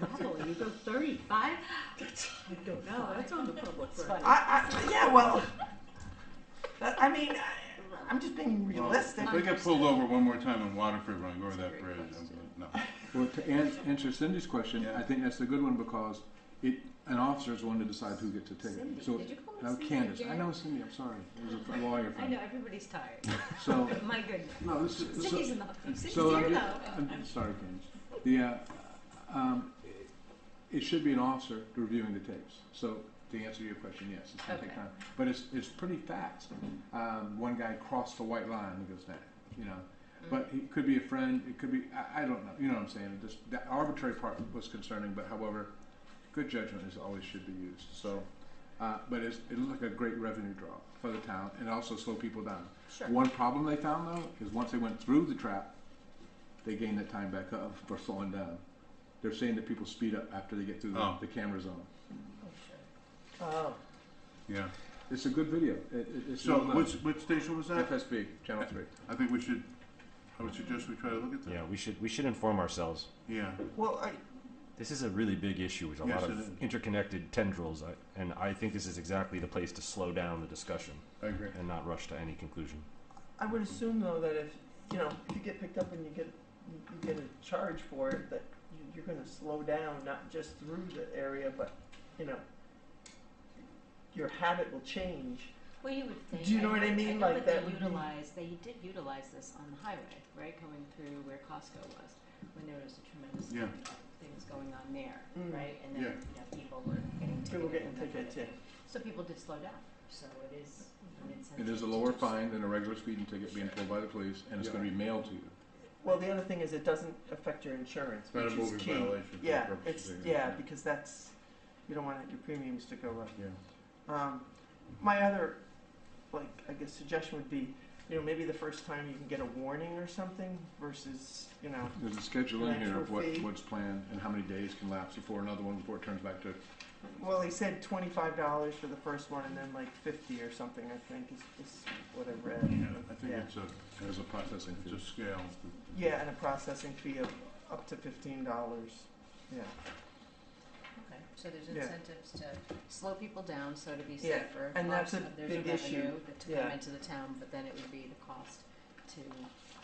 Probably, you go thirty-five? I don't No, that's on the public record. I, I, yeah, well, that- I mean, I, I'm just being Well, realistic. If we get pulled over one more time in Waterford when I go over that bridge, I'm gonna, no. Well, to an- answer Cindy's question, Yeah. I think that's a good one because it, an officer's one to decide who gets a ticket. So, Did you call me now Cindy Candace, I again? know Cindy, I'm sorry, it was a lawyer I friend. know, everybody's tired. So, My goodness. no, this is. so- Cindy's in the, Cindy's so here I'm ju- though. I'm just- sorry, Candace. The, uh, um, it- it should be an officer reviewing the tapes. So to answer your question, yes, it's gonna take Okay. time. But it's, it's pretty fast. Um, one guy crossed the white line and goes down, you know. Mm-hmm. But it could be a friend, it could be, I, I don't know, you know what I'm saying? Just, the arbitrary part was concerning, but however, good judgment is always should be used, so. Uh, but it's, it looked like a great revenue draw for the town and also slow people down. Sure. One problem they found though is once they went through the trap, they gained that time back up for slowing down. They're saying that people speed up after they get through the, Oh. the camera zone. Oh, sure. Oh, Yeah. It's a good video. It, it, it's So well done. which, which station was that? FSB Channel Three. I think we should, I would suggest we try to look at Yeah, that. we should we should inform ourselves. Yeah. well, I, This is a really big issue with a Yes, lot it is. of interconnected tendrils, I- and I think this is exactly the place to slow down the discussion I agree. and not rush to any conclusion. I would assume though that if, you know, if you get picked up and you get, you you get a charge for it, that you- you're gonna slow down, not just through the area, but, you know, your habit will change. Well, you would think. Do you know what I mean? know Like, what that they would be- utilized. They did utilize this on the highway, right, going through where Costco was, when there was a tremendous Yeah. amount of things going on there, Mm. right? And then Yeah. you know, people were getting People ticketed were getting and that kind of ticketed, thing. So people did slow down. So it is an incentive. It is a to lower do so. fine than a regular speeding ticket being pulled by the police, and it's Yeah. going to be mailed to you. Well, the other thing is it doesn't affect your insurance, Not a which is moving key. violation for Yeah, purposes it's, of the- yeah, because that's, you don't want your premiums to go up. Yeah. Um, my other, like, I guess suggestion would be, you know, maybe the first time you can get a warning or something versus, you know, There's a schedule in here of Actual what, fee. what's planned and how many days can lapse before another one before it turns back to. well, he said twenty-five dollars for the first one and then like fifty or something, I think is, is what I Yeah, read. I think Yeah. it's a, There's a processing it's a fee. scale. Yeah, and a processing fee of up to fifteen dollars, yeah. Okay, so there's Yeah. incentives to slow people down, so to be Yeah, safer. and that's a Obviously, big There's a issue. revenue that to Yeah. come into the town, but then it would be the cost to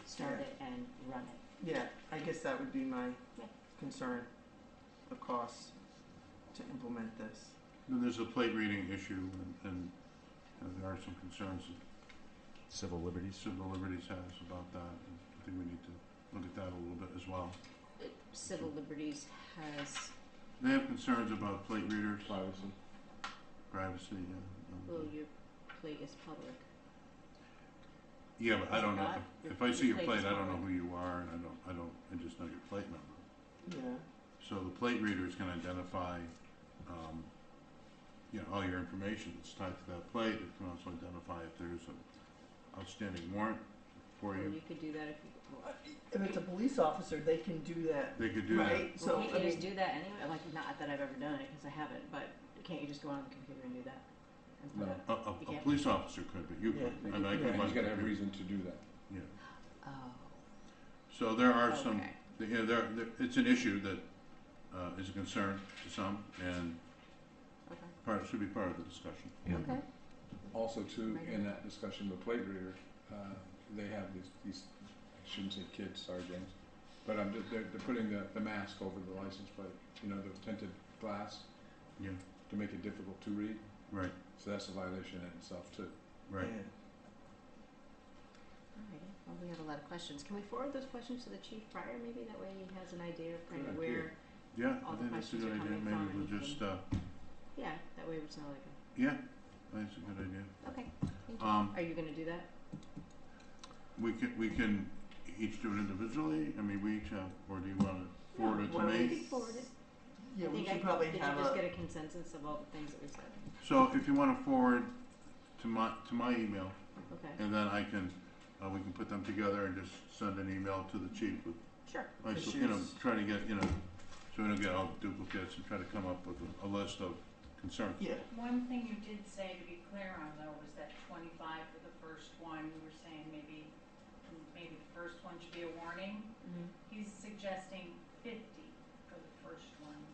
start Yeah. it and run it. Yeah, I guess that would be my Yeah. concern, the cost to implement this. Then there's a plate reading issue and, and uh, there are some concerns Civil that liberties. civil liberties has about that. and I think we need to look at that a little bit as well. Civil liberties has, They have concerns about plate readers, Privacy. privacy, yeah. well, um, your plate is public. Yeah, but I don't know, Not if- your- if I see your your plate plate, is I don't know covered. who you are and I don't, I don't, I just know your plate number. Yeah. So the plate readers can identify, um, you know, all your information that's tied to that plate. It can also identify if there's an outstanding warrant for Or you. you could do that if you, well, If it's a police officer, they can do that, They could do that. right? So, well, can't I you just mean, do that anyway? Like, not that I've ever done it, because I haven't, but can't you just go on the computer and do that? And put No. up- A, a, You a can't. police officer could, but you could. Yeah. And I could. Yeah. He's like- got to have reason to do that. Yeah. Oh, So there are some, okay. yeah, there, there, it's an issue that, uh, is a concern to some and Okay. part, should be part of the discussion. Yeah. Okay. Also, too, Right. in that discussion with plate reader, uh, they have these, these, I shouldn't say kids, sorry, James, but I'm just, they're, they're putting the, the mask over the license plate, you know, the tinted glass Yeah, to make it difficult to read. right, So that's a violation in itself, too. right. yeah. Alrighty, well, we have a lot of questions. Can we forward those questions to the chief prior, maybe? That way he has an idea of kind of Good where, Yeah, All the I think that's a questions good are idea. coming Maybe from we'll and just, uh, yeah, that way it's not like a, yeah, that's a good idea. okay, thank you. Um, Are you gonna do that? We can, we can each do it individually, I mean, we each have, or do you wanna forward it to why don't You me? can forward it. Yeah, I we think I- should probably Did have you just a, get a consensus of all the things that we said? So if you wanna forward to my, to my email, Okay, and then I can, uh, we can put them together and just send an email to the chief with, sure. like, so, you know, Issues. try to get, you know, so we don't get all duplicates and try to come up with a, a list of concerns. yeah, One thing you did say, to be clear on though, was that twenty-five for the first one, Mm-hmm. you were saying maybe, maybe the first one should be a warning. He's suggesting